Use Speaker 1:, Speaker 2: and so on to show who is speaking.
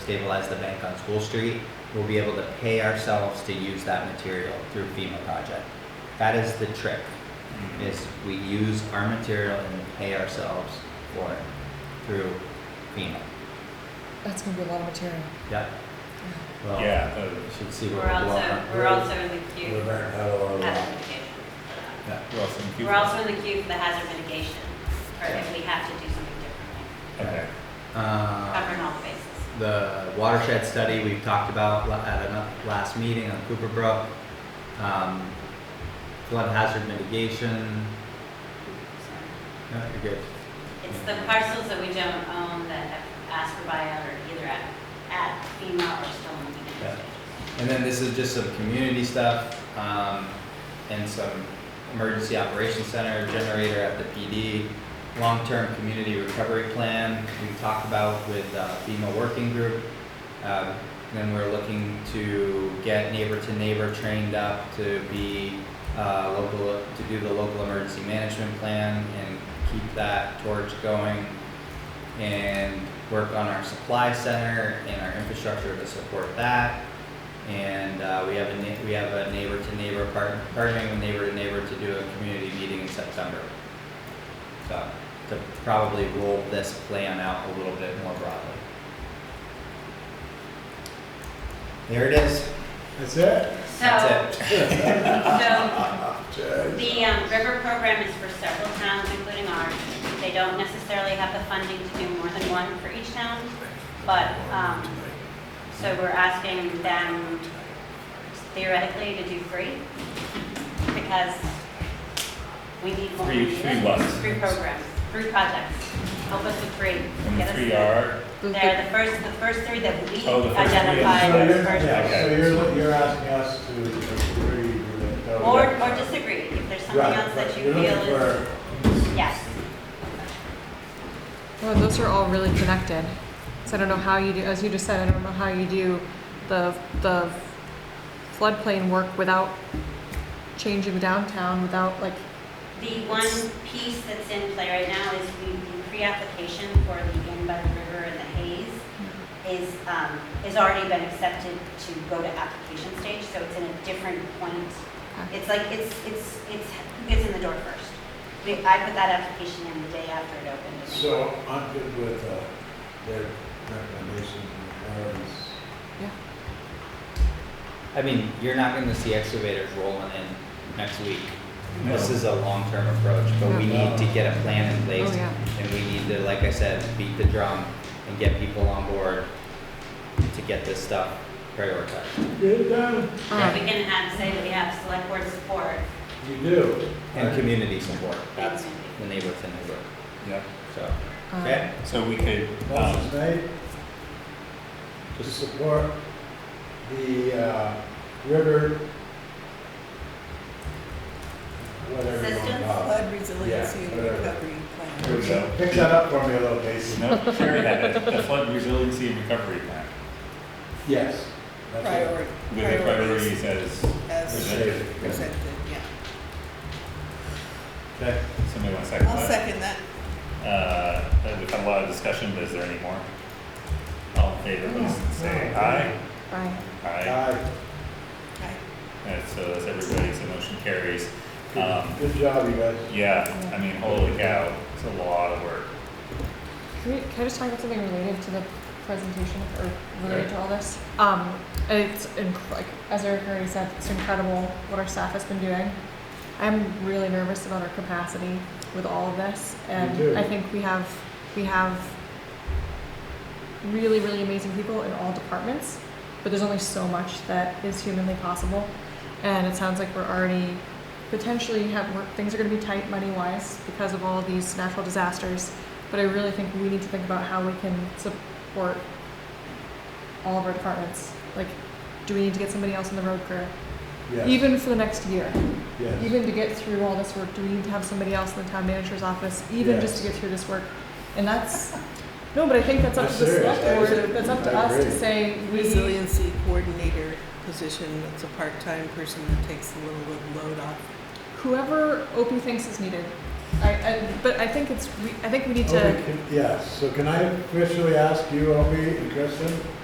Speaker 1: stabilize the bank on School Street, we'll be able to pay ourselves to use that material through FEMA project. That is the trick, is we use our material and pay ourselves for it through FEMA.
Speaker 2: That's gonna be a lot of material.
Speaker 1: Yep. Well,
Speaker 3: Yeah, uh, those.
Speaker 1: Should see what
Speaker 4: We're
Speaker 1: we're
Speaker 4: also, we're also in the queue
Speaker 5: We're
Speaker 4: for
Speaker 5: back out of our
Speaker 4: hazard
Speaker 5: law.
Speaker 4: mitigation.
Speaker 1: Yeah.
Speaker 3: Well, thank you.
Speaker 4: We're also in the queue for the hazard mitigation, or if we have to do something differently,
Speaker 3: Okay.
Speaker 1: Uh,
Speaker 4: covering all the bases.
Speaker 1: the watershed study we've talked about la- at a last meeting on Cooper Brook. Um, flood hazard mitigation, no, you're good.
Speaker 4: It's the parcels that we don't own that have asked for buyout or either at, at FEMA or still in the
Speaker 1: Yeah.
Speaker 4: beginning stages.
Speaker 1: And then this is just some community stuff, um, and some emergency operations center generator at the PD, long-term community recovery plan we talked about with uh, FEMA working group. Um, then we're looking to get neighbor to neighbor trained up to be, uh, local, to do the local emergency management plan and keep that torch going. And work on our supply center and our infrastructure to support that. And uh, we have a, neigh- we have a neighbor to neighbor, part- partnering with neighbor to neighbor to do a community meeting in September. So, to probably roll this plan out a little bit more broadly. There it is,
Speaker 5: That's it?
Speaker 4: So,
Speaker 1: that's it.
Speaker 4: so
Speaker 5: Jay.
Speaker 4: the um, river program is for several towns, including ours. They don't necessarily have the funding to do more than one for each town, but, um, so we're asking them theoretically to do three, because we need more.
Speaker 3: Three- three what?
Speaker 4: Three programs, three projects. Help us with three.
Speaker 3: And
Speaker 4: Get
Speaker 3: the
Speaker 4: us
Speaker 3: three
Speaker 4: there.
Speaker 3: are,
Speaker 4: They're the first, the first three that we
Speaker 3: Oh, the first three.
Speaker 4: identified
Speaker 5: So
Speaker 4: as
Speaker 5: you're,
Speaker 4: first.
Speaker 5: yeah, so
Speaker 3: Okay.
Speaker 5: you're, you're asking us to agree with that.
Speaker 4: Or, or disagree, if there's something
Speaker 5: Right,
Speaker 4: else that
Speaker 5: but
Speaker 4: you
Speaker 5: you're
Speaker 4: feel
Speaker 5: looking
Speaker 4: is,
Speaker 5: for-
Speaker 4: yes.
Speaker 2: Well, those are all really connected. So I don't know how you do, as you just said, I don't know how you do the, the floodplain work without changing downtown, without like,
Speaker 4: The one piece that's in play right now is the the pre-application for the Inn by the River and the Hayes is, um, has already been accepted to go to application stage, so it's in a different point.
Speaker 2: Okay.
Speaker 4: It's like, it's, it's, it's, who gets in the door first? We, I put that application in the day after it opened.
Speaker 5: So I'm good with, uh, their recommendations and priorities.
Speaker 1: I mean, you're not gonna see excavators rolling in next week. This
Speaker 3: No.
Speaker 1: is a long-term approach, but we
Speaker 5: No.
Speaker 1: need to get a plan in place.
Speaker 2: Oh, yeah.
Speaker 1: And we need to, like I said, beat the drum and get people on board to get this stuff prioritized.
Speaker 5: Get it done.
Speaker 4: If
Speaker 2: um,
Speaker 4: we can have, say that we have select board support,
Speaker 5: You do.
Speaker 1: And community support, that's
Speaker 4: Community.
Speaker 1: the neighbor to neighbor,
Speaker 3: yeah,
Speaker 1: so,
Speaker 2: um,
Speaker 1: okay?
Speaker 3: so we could, um,
Speaker 5: Motion's made to support the, uh, river, whatever you want to call it.
Speaker 6: Flood resiliency and
Speaker 5: whatever.
Speaker 6: recovery plan.
Speaker 5: Here we go. Pick that up for me a little, Casey.
Speaker 3: no, Sherry had it, the flood resiliency and recovery plan,
Speaker 5: Yes. that's it.
Speaker 6: Priori-
Speaker 3: with the priorities
Speaker 6: Priorities
Speaker 3: as,
Speaker 6: as
Speaker 5: Presented.
Speaker 6: presented, yeah.
Speaker 5: Okay.
Speaker 3: somebody want to second
Speaker 6: I'll
Speaker 3: that?
Speaker 6: second that.
Speaker 3: Uh, we've had a lot of discussion, but is there any more? All in favor, please say aye.
Speaker 2: Bye.
Speaker 3: Aye,
Speaker 5: Aye.
Speaker 6: I-
Speaker 3: and so that's everybody, so motion carries.
Speaker 5: Good-
Speaker 3: Um,
Speaker 5: Good job, you guys.
Speaker 3: yeah, I mean, holy cow, it's a lot of work.
Speaker 2: Can, we, can I just talk about something related to the presentation or related to all this? Um, it's inc- like as Eric already said, it's incredible what our staff has been doing. I'm really nervous about our capacity with all of this,
Speaker 5: too.
Speaker 2: and I think we have we have really really amazing people in all departments, but there's only so much that is humanly possible, and it sounds like we're already potentially have we're, things are going to be tight money wise because of all of these natural disasters. But I really think we need to think about how we can support all of our departments. Like, do we need to get somebody else on the road crew?
Speaker 5: Yes,
Speaker 2: Even for the next year,
Speaker 5: yes.
Speaker 2: even to get through all this work, do we need to have somebody else in the town manager's office, even just to
Speaker 5: Yes.
Speaker 2: get through this work? And that's, no, but I think that's up to the
Speaker 5: That's serious.
Speaker 2: select board,
Speaker 5: I-
Speaker 2: that's up to
Speaker 5: I
Speaker 2: us to
Speaker 5: agree.
Speaker 2: say, we,
Speaker 6: Resiliency coordinator position, it's a part-time person that takes a little bit of load off.
Speaker 2: whoever OP thinks is needed. I, I, but I think it's, we, I think we need
Speaker 5: Oh,
Speaker 2: to.
Speaker 5: we can- Yes, so can I officially ask you, Opie and Kristen,